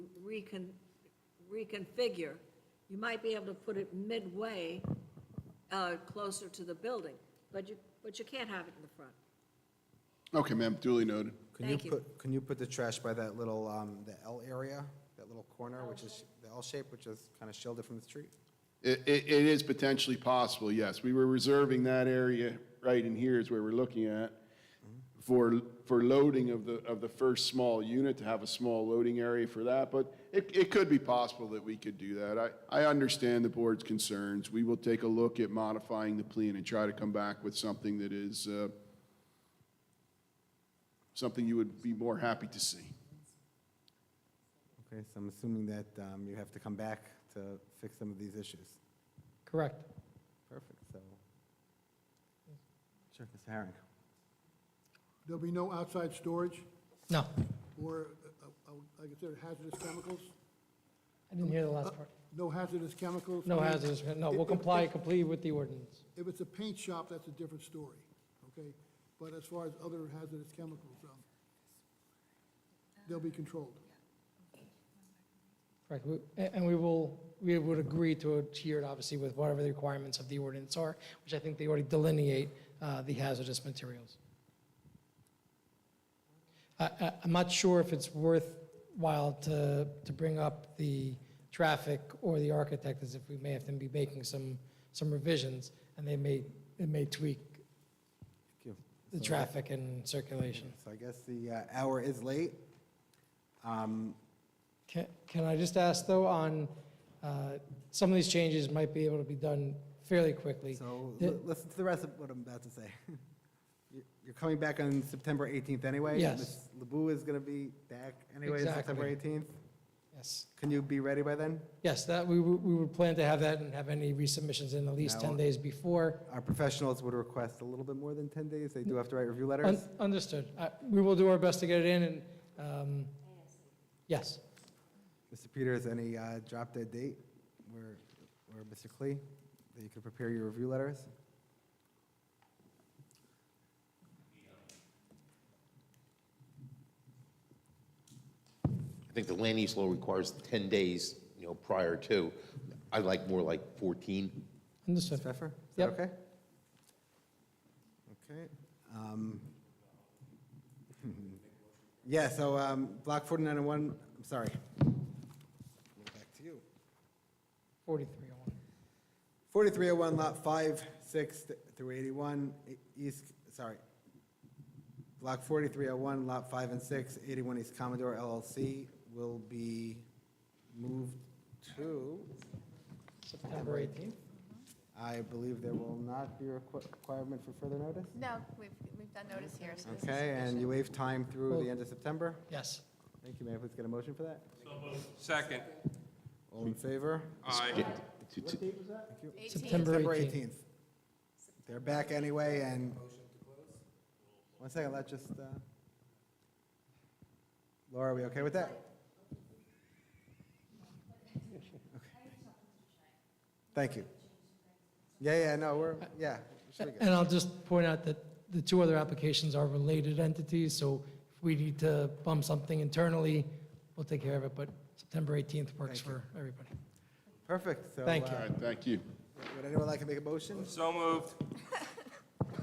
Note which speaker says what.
Speaker 1: recon, reconfigure, you might be able to put it midway, uh, closer to the building, but you, but you can't have it in the front.
Speaker 2: Okay, ma'am, duly noted.
Speaker 3: Can you
Speaker 1: Thank you.
Speaker 3: put, can you put the trash by that little, um, the L area, that little corner, which is the L shape, which is kind of shielded from the street?
Speaker 2: It, it, it is potentially possible, yes. We were reserving that area right in here is where we're looking at for, for loading of the, of the first small unit, to have a small loading area for that, but it, it could be possible that we could do that. I, I understand the board's concerns. We will take a look at modifying the plan and try to come back with something that is, uh, something you would be more happy to see.
Speaker 3: Okay, so I'm assuming that, um, you have to come back to fix some of these issues.
Speaker 4: Correct.
Speaker 3: Perfect, so. Sure, Ms. Herring.
Speaker 5: There'll be no outside storage
Speaker 4: No,
Speaker 5: or, uh, uh, I consider hazardous chemicals?
Speaker 4: I didn't hear the last part.
Speaker 5: No hazardous chemicals?
Speaker 4: No
Speaker 5: I mean,
Speaker 4: hazardous, no, we'll
Speaker 5: if- if-
Speaker 4: comply
Speaker 5: if-
Speaker 4: completely with the ordinance.
Speaker 5: If it's a paint shop, that's a different story, okay? But as far as other hazardous chemicals, um, they'll be controlled.
Speaker 4: Correct. We- a- And we will, we would agree to adhere, it, obviously, with whatever the requirements of the ordinance are, which I think they already delineate uh, the hazardous materials. I- I- I'm not sure if it's worthwhile to, to bring up the traffic or the architect, as if we may have to be making some, some revisions, and they may, it may tweak
Speaker 3: Thank you.
Speaker 4: the
Speaker 3: So-
Speaker 4: traffic and circulation.
Speaker 3: So I guess the uh, hour is late. Um,
Speaker 4: Can can I just ask, though, on, uh, some of these changes might be able to be done fairly quickly.
Speaker 3: So
Speaker 4: The-
Speaker 3: li- listen to the rest of what I'm about to say. You- You're coming back on September 18th anyway?
Speaker 4: Yes.
Speaker 3: Ms. Lebu is going to be back anyway, September
Speaker 4: Exactly.
Speaker 3: 18th.
Speaker 4: Yes,
Speaker 3: Can you be ready by then?
Speaker 4: yes, that, we would we would plan to have that and have any resubmissions in at least 10
Speaker 3: Now-
Speaker 4: days before.
Speaker 3: Our professionals would request a little bit more than 10 days. They do have to write review
Speaker 4: Un-
Speaker 3: letters.
Speaker 4: Understood. I- We will do our best to get it in, and, um, yes,
Speaker 3: Mr. Peters, any uh, drop dead date where, where Mr. Klee, that you could prepare your review letters?
Speaker 6: I think the land use law requires 10 days, you know, prior to. I like more like 14.
Speaker 3: Ms.
Speaker 4: understood.
Speaker 3: Pfeffer? Is that
Speaker 4: Yep.
Speaker 3: okay? Okay. um, Yeah, so um, Block 4901, I'm sorry. Back to you.
Speaker 4: 4301.
Speaker 3: 4301, Lot 5, 6 th- through 81, e- East, sorry. Block 4301, Lot 5 and 6, 81 East Commodore LLC will be moved to,
Speaker 4: September 18th.
Speaker 3: I believe there will not be a requ- requirement for further notice?
Speaker 7: No, we've, we've done notice here. so this is
Speaker 3: Okay, and you
Speaker 7: sufficient.
Speaker 3: waive time through the end of September?
Speaker 4: Yes.
Speaker 3: Thank you, may I please get a motion for that?
Speaker 8: Second.
Speaker 3: All in favor?
Speaker 8: Aye.
Speaker 6: To- to-
Speaker 3: Thank you.
Speaker 7: Eighteen.
Speaker 4: September
Speaker 3: September
Speaker 4: 18th.
Speaker 3: 18th. They're back anyway, and... One second, let's just, uh... Laura, are we okay with that? Thank you. Yeah, yeah, no, we're, yeah. we should be good.
Speaker 4: And I'll just point out that the two other applications are related entities, so if we need to bump something internally, we'll take care of it, but September 18th works
Speaker 3: Thank you.
Speaker 4: for everybody.
Speaker 3: Perfect, so...
Speaker 4: Thank you.
Speaker 2: All
Speaker 3: uh,
Speaker 2: right, thank you.
Speaker 3: Would anyone like to make a motion?
Speaker 8: So moved.